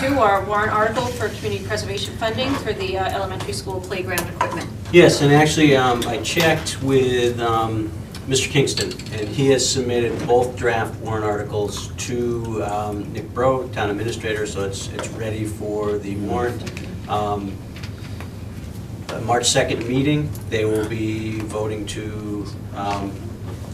two, our warrant article for community preservation funding for the uh, elementary school playground equipment. Yes, and actually, um, I checked with um, Mr. Kingston, and he has submitted both draft warrant articles to um, Nick Bro, Town Administrator, so it's, it's ready for the warrant. Um, uh, March 2nd meeting, they will be voting to um,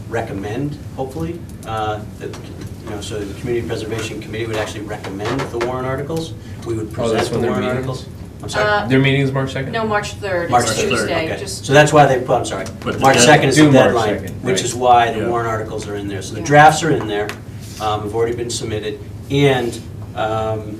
recommend, hopefully, uh, that, you know, so the Community Preservation Committee would actually recommend the warrant articles. We would Oh, present that's the when they're warrant meeting? articles. I'm sorry. Uh, Their meeting is March 2nd? No, March 3rd, March it's 3rd, Tuesday, Okay, just, so that's why they, put. I'm sorry, But the March dead- 2nd is the due March deadline, 2nd, which right. is why the Yeah. warrant articles are in there. So the Yeah. drafts are in there, um, have already been submitted, and um,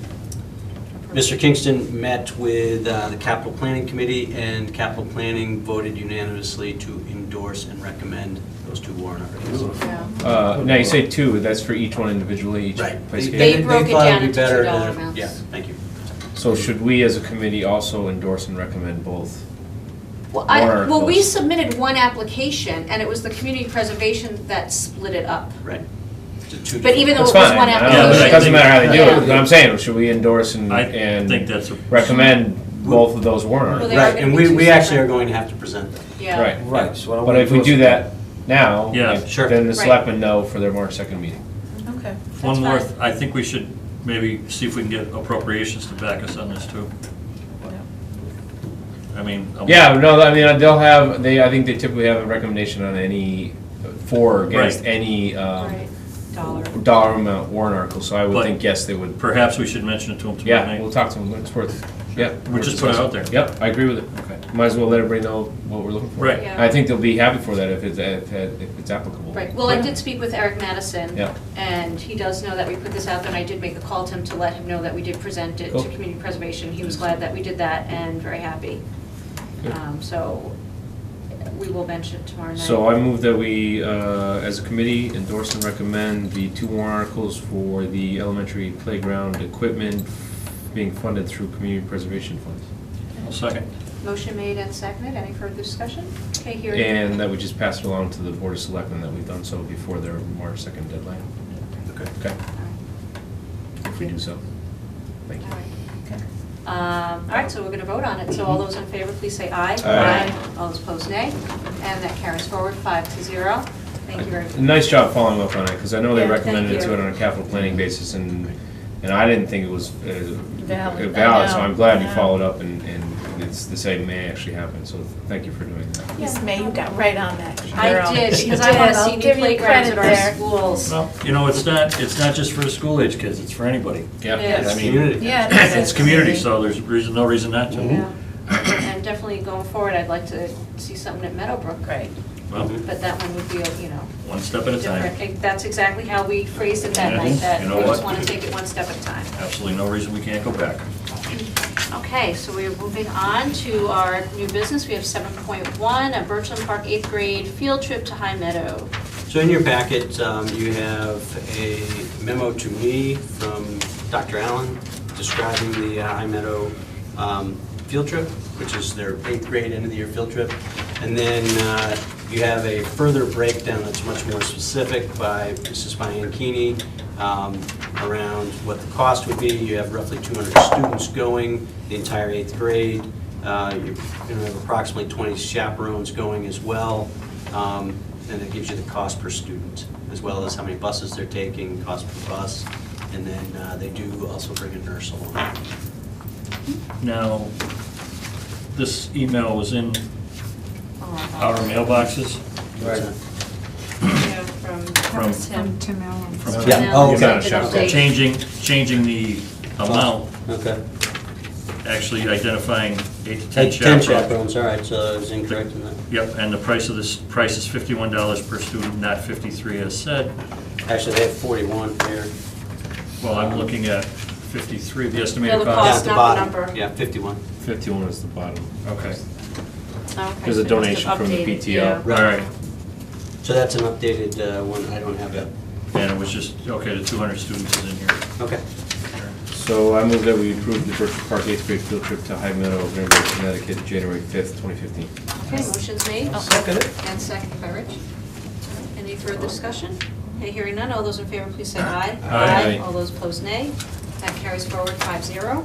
Mr. Kingston met with uh, the Capital Planning Committee, and Capital Planning voted unanimously to endorse and recommend those two warrant articles. yeah. Uh, now you say two, that's for each one individually, each Right. place. They- candidate? broke it thought down would be into $2 better to- amounts. Yeah, thank you. So should we as a committee also endorse and recommend both? Well, I, Warrant well, we articles. submitted one application, and it was the community preservation that split it up. Right. The two But even though That's it was fine, one I don't- Yeah, but application. it doesn't matter how they do Yeah. it, but I'm saying, should we endorse and, I think and that's a. recommend both of those warrant Well, articles? they are Right, gonna and be we, two we actually separate. are going to have to present them. Yeah. Right. Right, so what I But if we wanna do is- that now, Yeah, like, sure. then the Right. selectmen know for their March second meeting. Okay. One more, That's fine. I think we should maybe see if we can get appropriations to back us on this too. I mean. um, I'm- Yeah, no, I mean, they'll have, they, I think they typically have a recommendation on any, for or against Right. any, um, Right. Dollar. dollar amount warrant article, so I would But- think, yes, they would. Perhaps we should mention it to them tomorrow Yeah, we'll night. talk to them, it's worth, yeah. We'll just put it out there. Yep, I agree with it. Okay. Might as well let everybody know what we're looking for. Right. Yeah. I think they'll be happy for that if it's, if it- if it's applicable. Right, well, I did speak with Eric Madison. Yeah. And he does know that we put this out, there, and I did make a call to him to let him know that we did present it to Cool. community preservation. He was glad that we did that and very happy. Good. Um, So we will mention it tomorrow night. So I move that we, uh, as a committee, endorse and recommend the two warrant articles for the elementary playground equipment being funded through community preservation funds. I'll Second. Motion made and seconded. Any further discussion? Okay, hearing. And uh, that we just pass it along to the Board of Selectmen that we've done so before their March second deadline. Okay. Okay, All right. if we do so. Thank you. All right. Um, All right, so we're going to vote on it. So all those in favor, please say aye. Aye. All those opposed, nay. And that carries forward five to zero. Thank you very much. Nice job following up on it, because I know they Yeah, recommended thank it to you. it on a capital planning basis, and, and I didn't think it was uh, Valid, I valid, so know, I'm glad you yeah. followed up, and, and it's, the same may actually happen, so thank you for doing that. Yes, May, you got right on that. I girl. did, You because I want did. to I'll see new give you playgrounds at credit our there. schools. Well, you know, it's not, it's not just for the school age kids, it's for anybody. Yeah, I Yes. mean, Community. Yeah. it It's is. community, so there's reason, no reason not to. Yeah, And definitely going forward, I'd like to see something at Meadowbrook. Right. Well, But that one would be, you know, one step at a time. different. That's exactly how we phrased it that Yeah. night, that You know we just what? want to take it one step at a time. Absolutely no reason we can't go back. Okay, so we are moving on to our new business. We have 7.1, a Birchland Park eighth grade field trip to High Meadow. So in your packet, um, you have a memo to me from Dr. Allen describing the uh, High Meadow um, field trip, which is their eighth grade end-of-the-year field trip. And then uh, you have a further breakdown that's much more specific by Mrs. Bianchini um, around what the cost would be. You have roughly 200 students going, the entire eighth grade. Uh, You're going to have approximately 20 chaperones going as well. Um, And it gives you the cost per student, as well as how many buses they're taking, cost per bus. And then uh, they do also bring a nurse along. Now, this email was in our Oh, mailboxes yeah, From, that was From him. Tim Allen. from Yeah. Now Oh, it's okay. up to the Sure. state. changing, changing the amount, Okay. actually identifying eight to ten Ten chaperones. chaperones, all right, so I was incorrect in that. Yep, and the price of this, price is fifty-one dollars per student, not fifty-three as said. Actually, they have 41 here. Well, I'm looking at fifty-three, the Yeah, estimated the Yeah, cost. at cost. the Oh, not the bottom. number. Yeah, 51. fifty-one is the bottom. Okay, Okay, There's so a it must have donation from the updated, PTO. yeah. all right. So that's an updated uh, one, I don't have that. And it was just, okay, the two hundred students is in here. Okay. So I move that we approve the Berkshire Park eighth grade field trip to High Meadow, Granbury, Connecticut, January fifth, twenty fifteen. Okay, motion's made. Oh. second it. And seconded by Rich. Any further discussion? Okay, hearing none, all those in favor, please say aye. Aye. All those opposed, nay. That carries forward five zero.